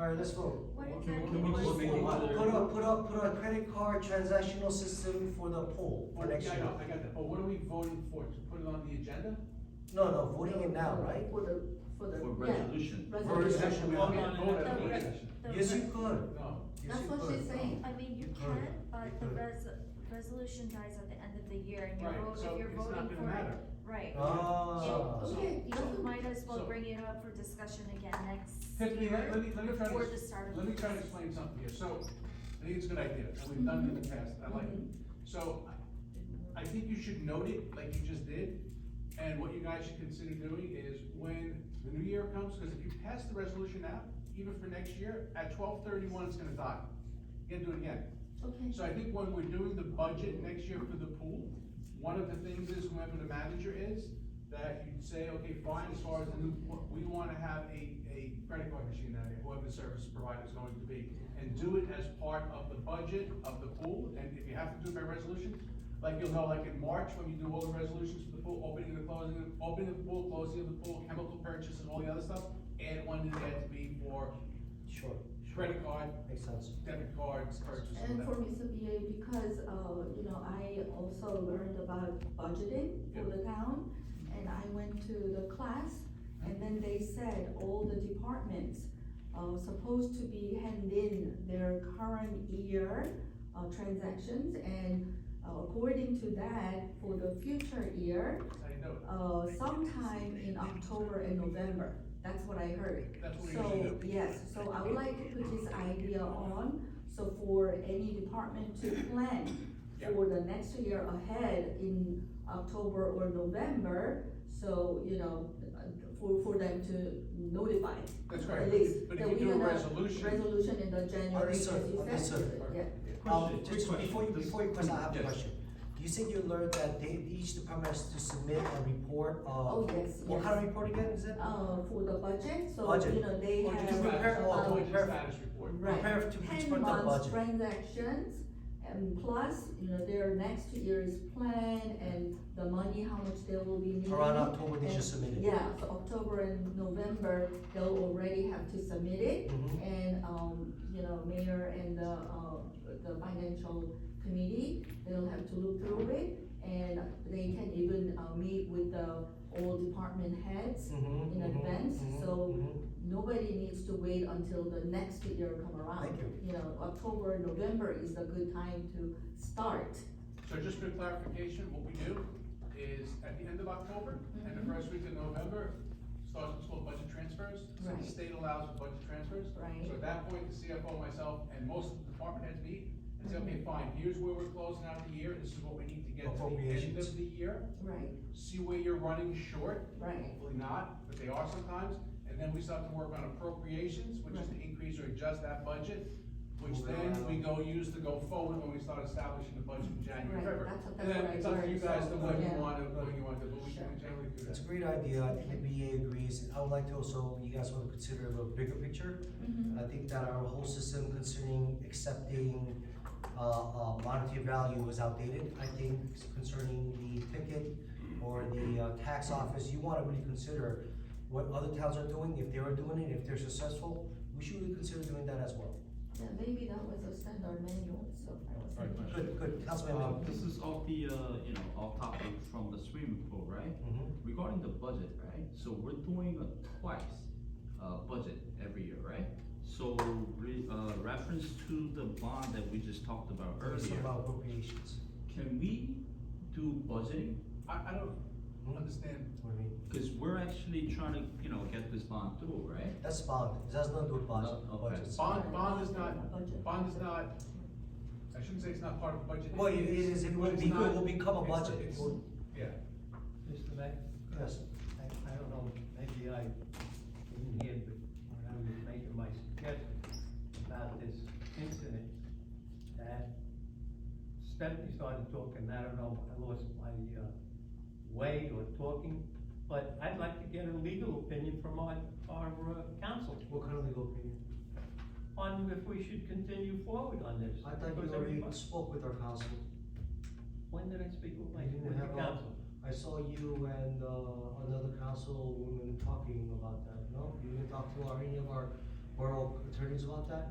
Alright, let's vote. What is Can- that? can we just make it- Put up, put up, put a credit card transactional system for the poll Oh, for next yeah, I year. know, I got that, but what are we voting for, to put it on the agenda? No, no, voting it now, right? For the, for the. For yeah, resolution. For resolution, We we don't don't get need to voted vote on on the it. agenda. The Yes, you re- could. No, Yes, That's you what could. she's saying. I mean, you You can, could, you but the could. res- resolution dies at the end of the year and you're Right, voting, so if you're it's not voting gonna for it, matter. Uh, right. Ah. So- so- Okay, you so- You might as well so- bring it up for discussion again next Tiffany, let, let year, me, let me try to, before the start of. let me the try to year. explain something here, so, I think it's a good idea, and we've done it in the past, I like Mm-hmm. it. So, I think you should note it, like you just did, and what you guys should consider doing is when the new year comes, because if you pass the resolution now, even for next year, at twelve thirty-one, it's gonna die. You gotta do it again. Okay, So I think when we're doing the budget next year for the pool, one of the things is whoever the manager is, that you say, okay, fine, as far as the new, we wanna have a, a credit card machine out here, whoever the service provider is going to be. And do it as part of the budget of the pool, and if you have to do it by resolution, like you'll know, like in March, when you do all the resolutions for the pool, opening and closing, opening of the pool, closing of the pool, chemical purchase and all the other stuff, add one to that to be for Sure, credit card, makes sense. debit cards, purchase. and for whatever. Mr. BA, because, uh, you know, I also learned about budgeting for the town, and I went to the class, and then they said all the departments are supposed to be hand in their current year, uh, transactions, and uh, according to that, for the future year, That's how you do it. uh, sometime in October and November, that's what I heard. That's what we usually So, do. yes, so I would like to put this idea on, so for any department to plan Yeah. for the next year ahead in October or November, so, you know, for, for them to notify. That's At correct, least but that if you we do a have resolution, Resolution in the January, as Understood, you said, understood. yeah. Um, Question, just quick before you, question. before you question, I have a Yes. question. Do you think you learned that they, each department has to submit a report Oh, of, yes, what kind yes, of report again is it? uh, for the budget, so, Budget. you know, they or have. just prepare- status, or about- or just prepare- status report. Right. Prepare to each ten part of the months budget. transactions, and plus, you know, their next year's plan and the money, how much they will be needing. Around October, they should And- submit it. Yeah, so October and November, they'll already have to submit it, Mhm. and, um, you know, mayor and the, uh, the financial committee, they'll have to look through it, and they can even, uh, meet with the all department heads. Mhm, in mhm, advance, mhm, so mhm. Nobody needs to wait until the next year come around. Thank you. You know, October, November is a good time to start. So just for clarification, what we do is at the end of October and the Mhm. first week of November, starts what's called budget transfers. So Right. the state allows for budget transfers. Right. So at that point, the CFO, myself, and most of the department heads meet and say, Mhm. okay, fine, here's where we're closing out the year, this is what we need to get to the end Appropriations. of the year. Right, See where you're running short, right. Hopefully not, but they are sometimes, and then we start to work on appropriations, which is to increase or adjust that budget, which then we go use to go forward when we start establishing the budget in January, Right, February. that's what- And then that's what it's I up to you learned, guys so, to what you yeah. want to, what you want to, but we can generally do It's that. a great idea, I think the BA agrees, I would like to also, you guys want to consider a bigger picture? Mm-hmm. And I think that our whole system concerning accepting, uh, uh, monetary value was outdated. I think concerning the ticket or the, uh, tax office, you wanna really consider what other towns are doing, if they are doing it, if they're successful, we should really consider doing that as well. Yeah, maybe that was a standard manual, so I was Right, thinking. Good, good, Councilman Uh, Lim. This is off the, uh, you know, off topic from the swimming pool, right? Mhm. Regarding the budget, right? So we're doing a twice, uh, budget every year, right? So, re, uh, reference to the bond that we just talked about It's earlier, about appropriations. can we do budgeting? I, I Mm-hmm. don't understand, What do you mean? Cause we're actually trying to, you know, get this bond through, right? That's bond, it has nothing to do with budget, No, Oh, okay. budgets. bond, bond is Budget. not, bond is not, I shouldn't say it's not part of the budget. Well, it is, it but will it's be, it not- will become a it's- budget. it's- Yeah, Mr. Mayor, Yes. I, I don't know, maybe I didn't hear, but when I was making my suggestion about this incident, that Stephanie started talking, I don't know, I lost my, uh, way or talking, but I'd like to get a legal opinion from our, our uh, counsel What kind of legal opinion? on if we should continue forward on this. I thought you because already everybody- spoke with our council. When did I speak with Oh my, You didn't with the have a- council? I saw you and, uh, another councilwoman talking about that, no? You didn't talk to our, any of our borough attorneys about that?